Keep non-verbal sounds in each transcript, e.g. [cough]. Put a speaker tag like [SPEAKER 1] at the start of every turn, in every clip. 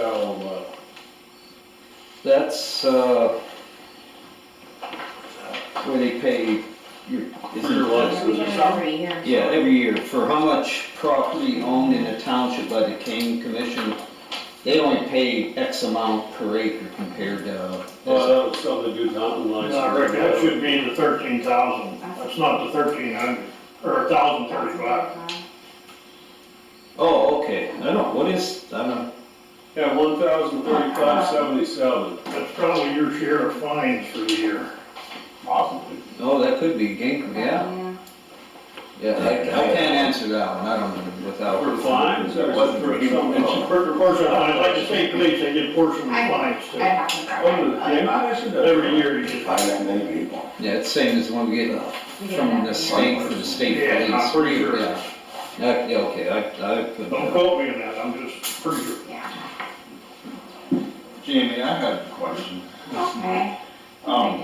[SPEAKER 1] uh,
[SPEAKER 2] That's, uh, where they pay your, is it
[SPEAKER 3] Every year, every year.
[SPEAKER 2] Yeah, every year, for how much property owned in a township by the Kane Commission, they only pay X amount per acre compared to.
[SPEAKER 1] Well, that was something to do Mountain Lions.
[SPEAKER 4] No, Rick, that should be the thirteen thousand, that's not the thirteen hundred, or a thousand thirty-five.
[SPEAKER 2] Oh, okay, I don't, what is, I don't,
[SPEAKER 1] Yeah, one thousand thirty-five seventy-seven.
[SPEAKER 4] That's probably your share of fines for the year, possibly.
[SPEAKER 2] oh, that could be Gink, yeah, yeah, I, I can't answer that one, I don't, know without.
[SPEAKER 1] For fines or
[SPEAKER 4] Wasn't
[SPEAKER 1] for something
[SPEAKER 4] It's a
[SPEAKER 1] else?
[SPEAKER 4] per- portion, of- I'd like to say police, they get portion of
[SPEAKER 3] I-
[SPEAKER 4] fines
[SPEAKER 3] I
[SPEAKER 4] too.
[SPEAKER 3] have to
[SPEAKER 1] Under
[SPEAKER 3] grab
[SPEAKER 1] the
[SPEAKER 3] it.
[SPEAKER 1] game commission?
[SPEAKER 4] Every year you
[SPEAKER 5] If
[SPEAKER 4] get.
[SPEAKER 5] I met many people,
[SPEAKER 2] Yeah, it's same as the one we get
[SPEAKER 3] we get
[SPEAKER 2] from
[SPEAKER 3] it
[SPEAKER 2] the
[SPEAKER 3] every year.
[SPEAKER 2] state, from the state police.
[SPEAKER 4] Yeah, I'm pretty sure.
[SPEAKER 2] Yeah, I- yeah, okay, I, I could.
[SPEAKER 4] Don't quote me on that, I'm just pretty sure.
[SPEAKER 3] Yeah,
[SPEAKER 6] Jamie, I had a question.
[SPEAKER 3] okay.
[SPEAKER 6] Um,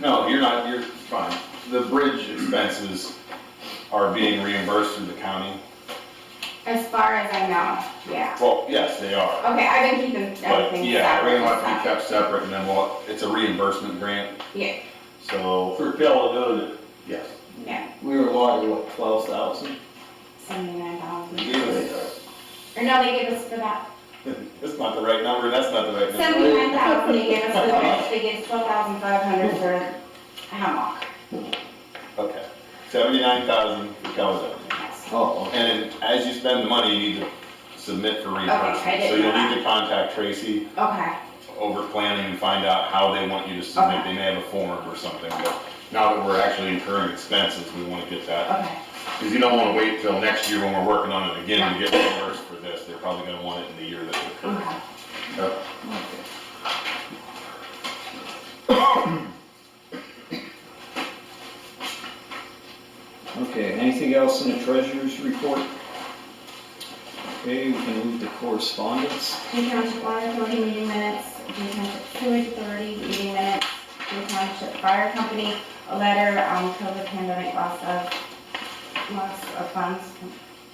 [SPEAKER 6] no, you're not, you're fine. The bridge expenses are being reimbursed through the county?
[SPEAKER 3] As far as I know, yeah.
[SPEAKER 6] Well, yes, they are.
[SPEAKER 3] Okay, I've been keeping
[SPEAKER 6] But
[SPEAKER 3] everything
[SPEAKER 6] yeah,
[SPEAKER 3] separate.
[SPEAKER 6] everything
[SPEAKER 3] and
[SPEAKER 6] must be
[SPEAKER 3] stuff.
[SPEAKER 6] kept separate and then, well, it's a reimbursement grant,
[SPEAKER 3] Yeah,
[SPEAKER 6] so.
[SPEAKER 1] For Caledonia.
[SPEAKER 6] Yes. [laughs]
[SPEAKER 3] yeah,
[SPEAKER 2] We were allotted, what, twelve thousand?
[SPEAKER 3] seventy-nine dollars.
[SPEAKER 6] It's
[SPEAKER 3] Or no, they gave us
[SPEAKER 6] [laughs]
[SPEAKER 3] for that,
[SPEAKER 6] not the right number, that's not the right number.
[SPEAKER 3] seventy-nine thousand, they gave us for that, they gave us twelve thousand five hundred for hammock.
[SPEAKER 6] Okay, seventy-nine thousand for Caledonia.
[SPEAKER 3] Yes.
[SPEAKER 2] Oh, okay.
[SPEAKER 6] And then as you spend the money, you need to submit for reimbursement.
[SPEAKER 3] didn't
[SPEAKER 6] So you'll
[SPEAKER 3] know
[SPEAKER 6] need to contact Tracy
[SPEAKER 3] Okay,
[SPEAKER 6] over planning and find out how they want you to submit. They may have a form or something, but now that we're actually incurring expenses, we wanna get that.
[SPEAKER 3] okay,
[SPEAKER 6] Cause you don't wanna wait till next year when we're working on it again to get reimbursed for this. They're probably gonna want it in the year that it occurs.
[SPEAKER 3] okay.
[SPEAKER 6] Yep.
[SPEAKER 2] Okay, anything else in the treasurer's report? Okay, we can move to correspondence.
[SPEAKER 3] New Township Water Authority meeting minutes, New Township Sewage Authority meeting minutes, New Township Fire Company, a letter on COVID pandemic loss of, loss of funds,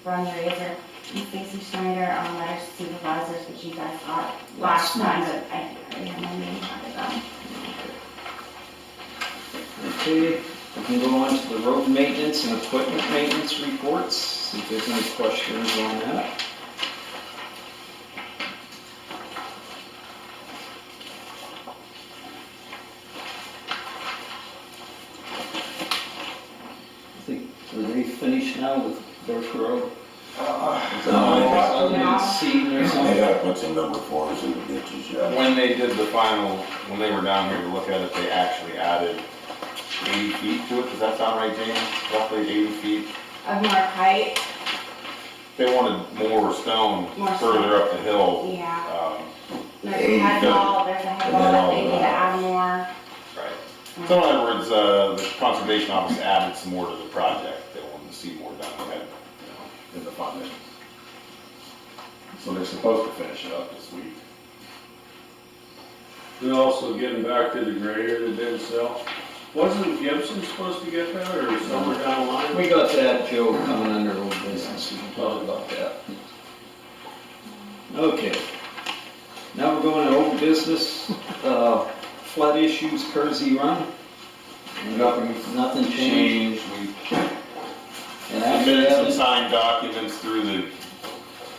[SPEAKER 3] Ron Razor, and Stacy Schneider on letters to supervisors, which you guys got last
[SPEAKER 2] Last
[SPEAKER 3] time, but I already have my meeting on them.
[SPEAKER 2] Okay, we can go on to the road maintenance and equipment maintenance reports, see if there's any questions on that. I think, are they finished now with Burke Road?
[SPEAKER 5] uh,
[SPEAKER 2] Other than
[SPEAKER 3] No.
[SPEAKER 2] seeding or
[SPEAKER 5] they
[SPEAKER 2] something?
[SPEAKER 5] gotta put some number fours in the ditches, yeah.
[SPEAKER 6] When they did the final, when they were down here to look at it, they actually added eighty feet to it. Does that sound right, James? Roughly eighty feet.
[SPEAKER 3] um, Of more height,
[SPEAKER 6] They wanted more stone
[SPEAKER 3] More stone.
[SPEAKER 6] further up the hill.
[SPEAKER 3] yeah,
[SPEAKER 6] Um,
[SPEAKER 3] there's a head wall, there's a head wall, that they need to add more.
[SPEAKER 6] Right. So in other words, uh, the conservation office added some more to the project, they wanted to see more done ahead, you know, in the funding. So they're supposed to finish it up this week.
[SPEAKER 1] They're also getting back to the grader that didn't sell. Wasn't Gibson supposed to get that or somewhere down the line?
[SPEAKER 2] We got that, Joe, coming under old business, we can talk about that. Okay. Now we're going to old business, uh, flood issues, Kersey Run.
[SPEAKER 6] Nothing's
[SPEAKER 2] Nothing changed.
[SPEAKER 6] Changed, we
[SPEAKER 2] And after
[SPEAKER 6] submitted some
[SPEAKER 2] that,
[SPEAKER 6] signed documents through the,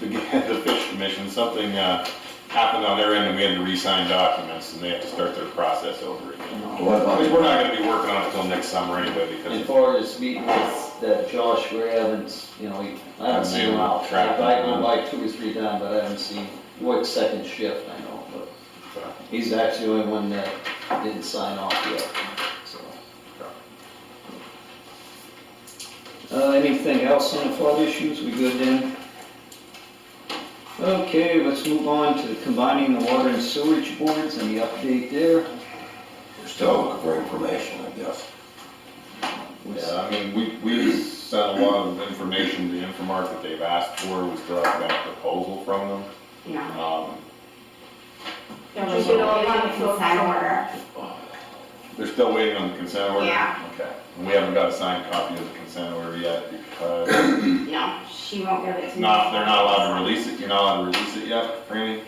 [SPEAKER 6] the [laughs] the fish commission, something, uh, happened on their end, and we had to re-sign documents, and they have to start their process over again.
[SPEAKER 5] What about
[SPEAKER 6] Because we're not gonna be working on it till next summer anyway, because
[SPEAKER 2] as
[SPEAKER 6] it's
[SPEAKER 2] far as meeting with that Josh Ravens, you know, he- I haven't seen him out. I've gone by two or three times, but I haven't seen, what second shift, I know, but
[SPEAKER 6] uh,
[SPEAKER 2] he's actually the only one that didn't sign off yet, so. Uh, anything else on the flood issues, we good then? Okay, let's move on to combining the water and sewage boards, any update there?
[SPEAKER 5] We're still looking for information, I guess.
[SPEAKER 6] Yeah, I mean, we, we sent a lot of information to Infomark that they've asked for, we still haven't got a proposal from them.
[SPEAKER 3] No.
[SPEAKER 6] Um,
[SPEAKER 3] Just do a one consent order,
[SPEAKER 6] They're still waiting on the consent order?
[SPEAKER 3] Yeah.
[SPEAKER 6] Okay, and we haven't got a signed copy of the consent order yet because,
[SPEAKER 3] no, she won't give it to me.
[SPEAKER 6] not, they're not allowed to release it, you're not allowed to release it yet, Franny?